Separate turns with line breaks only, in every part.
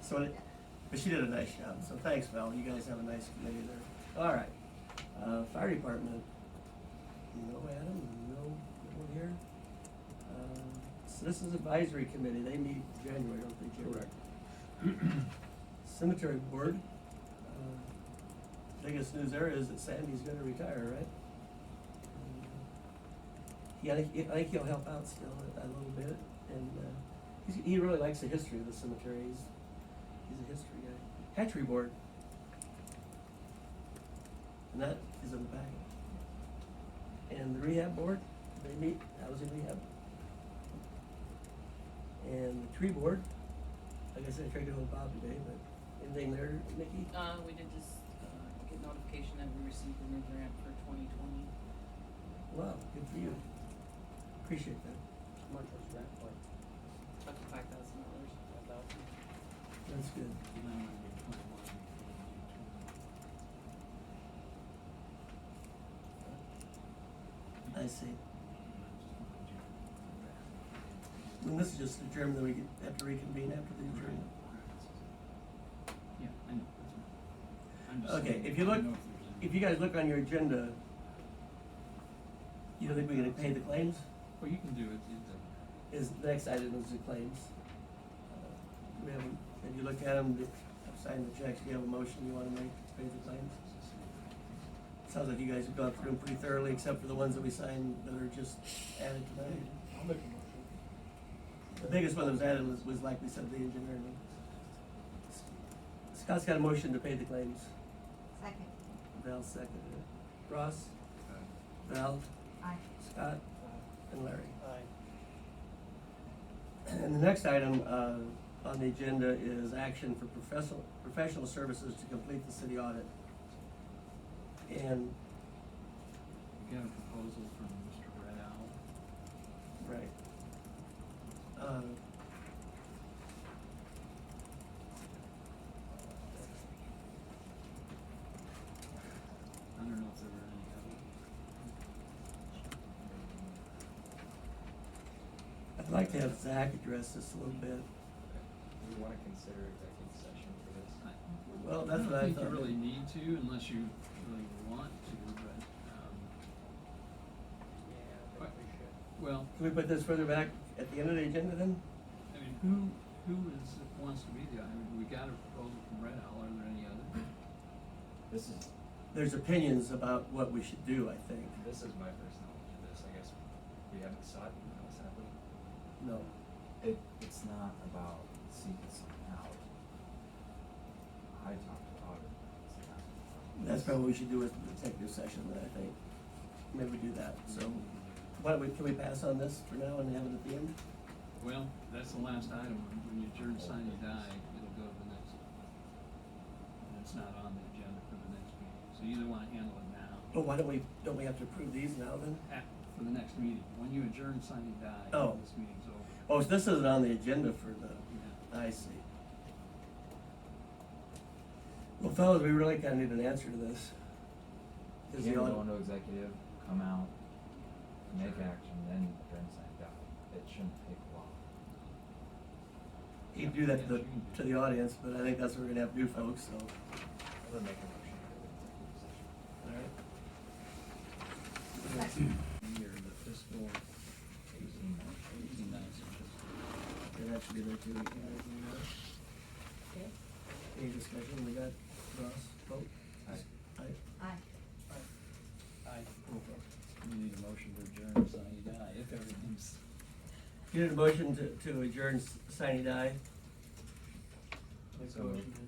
So, it- but she did a nice job, so thanks, Val, you guys have a nice committee there. All right, uh, fire department, no Adam, no, no one here. Uh, Citizens Advisory Committee, they meet in January, I don't think they
Correct.
Cemetery Board, uh, biggest news there is that Sandy's gonna retire, right? Yeah, I think, I think he'll help out still a, a little bit, and, uh, he's, he really likes the history of the cemetery, he's, he's a history guy. Hatchery Board. And that is in the bag. And the rehab board, they meet, I was in rehab. And the tree board, like I said, I tried to hold Bob today, but anything there, Nikki?
Uh, we did just, uh, get notification that we received a new grant for twenty twenty.
Wow, good for you. Appreciate that.
How much was that for?
Up to five thousand dollars, five thousand.
That's good. I see. And this is just a German that we could have to reconvene after the adjournment.
Yeah, I know. I'm just
Okay,
saying,
if you
I
look,
don't know if there's
if you guys look on your agenda, you don't think we're gonna pay the claims?
any- Well, you can do it, it doesn't.
Is, the next item is the claims. Uh, We haven't, have you looked at them, did- I've signed the checks, do you have a motion you wanna make to pay the claims? Sounds like you guys have gone through them pretty thoroughly, except for the ones that we signed that are just added tonight.
I'll make a motion.
The biggest one that was added was, was like we said, the engineering. one. Scott's got a motion to pay the claims.
Second.
Val seconded it. Ross? Val?
Aye.
Scott? And Larry? And the next item uh, on the agenda is action for professional, professional services to complete the city audit. And,
We got a proposal from Mr. Red Owl.
right. Uh,
I don't know if there were any other.
I'd like to have Zach address this a little bit.
Do we wanna consider executive session for this?
I-
Well, that's what I
think
thought.
you really need to unless you really want to, but, um,
Yeah, I
What?
think we should.
well,
Can we put this further back at the end of the agenda then?
I mean, who, who is, wants to be the, I mean, we got a proposal from Red Owl, are there any other?
This is,
There's opinions about what we should do, I think.
this is my first knowledge of this, I guess we haven't sought anyone else, have we?
No.
It, it's not about seeking someone out. I talked to Otter, it's not.
That's probably what we should do with the executive session, then, I think. Maybe we do that, so. Why don't we, can we pass on this for now and have it at the end?
Well, that's the last item, when you adjourn, sign, and die, it'll go to the next. And it's not on the agenda for the next meeting, so you either wanna handle it now,
Oh, why don't we, don't we have to approve these now then?
at, for the next meeting, when you adjourn, sign, and die,
Oh.
this meeting's over.
Oh, so this isn't on the agenda for the,
Yeah.
I see. Well, fellas, we really kinda need an answer to this.
You
Is
can't
the
go
audit,
into executive, come out, make action, then turn sign down, it shouldn't take long.
you do that to the, to the audience, but I think that's what we're gonna have to do, folks, so.
I'm gonna make a motion for the executive session.
Alright.
Year, the fiscal eighteen, eighteen nineteen fiscal.
Yeah, that should be there too. We can add it in there.
Okay.
Any discussion? We got Ross, vote?
Aye.
Aye.
Aye.
Okay.
You need a motion to adjourn, sign, and die, if everything's.
You need a motion to, to adjourn s- sine and die?
Make a
So moved.
motion to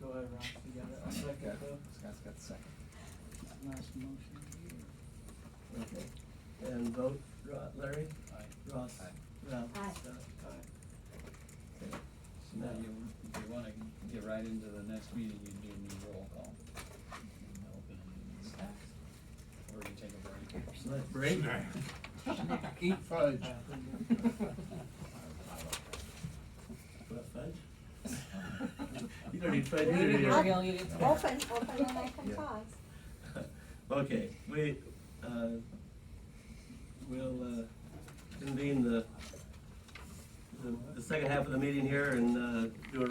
go ahead, Ross, you got it, I'll second
Okay,
though.
Scott's got the second.
Last motion of the year.
Okay. And vote Ro- Larry? Aye. Ross?
Aye.
Ralph?
Aye.
Scott?
Aye.
Okay.
So now you, if you wanna get right into the next meeting, you do need roll call. And open it and stuff. Or you take a break.
So let's break.
Eat fudge.
What fudge? You don't need fudge either, do you?
I'll-
I'll eat it tomorrow.
Open, open and I can
Yeah.
talk.
Okay, we, uh, we'll, uh, convene the, the, the second half of the meeting here and, uh, do a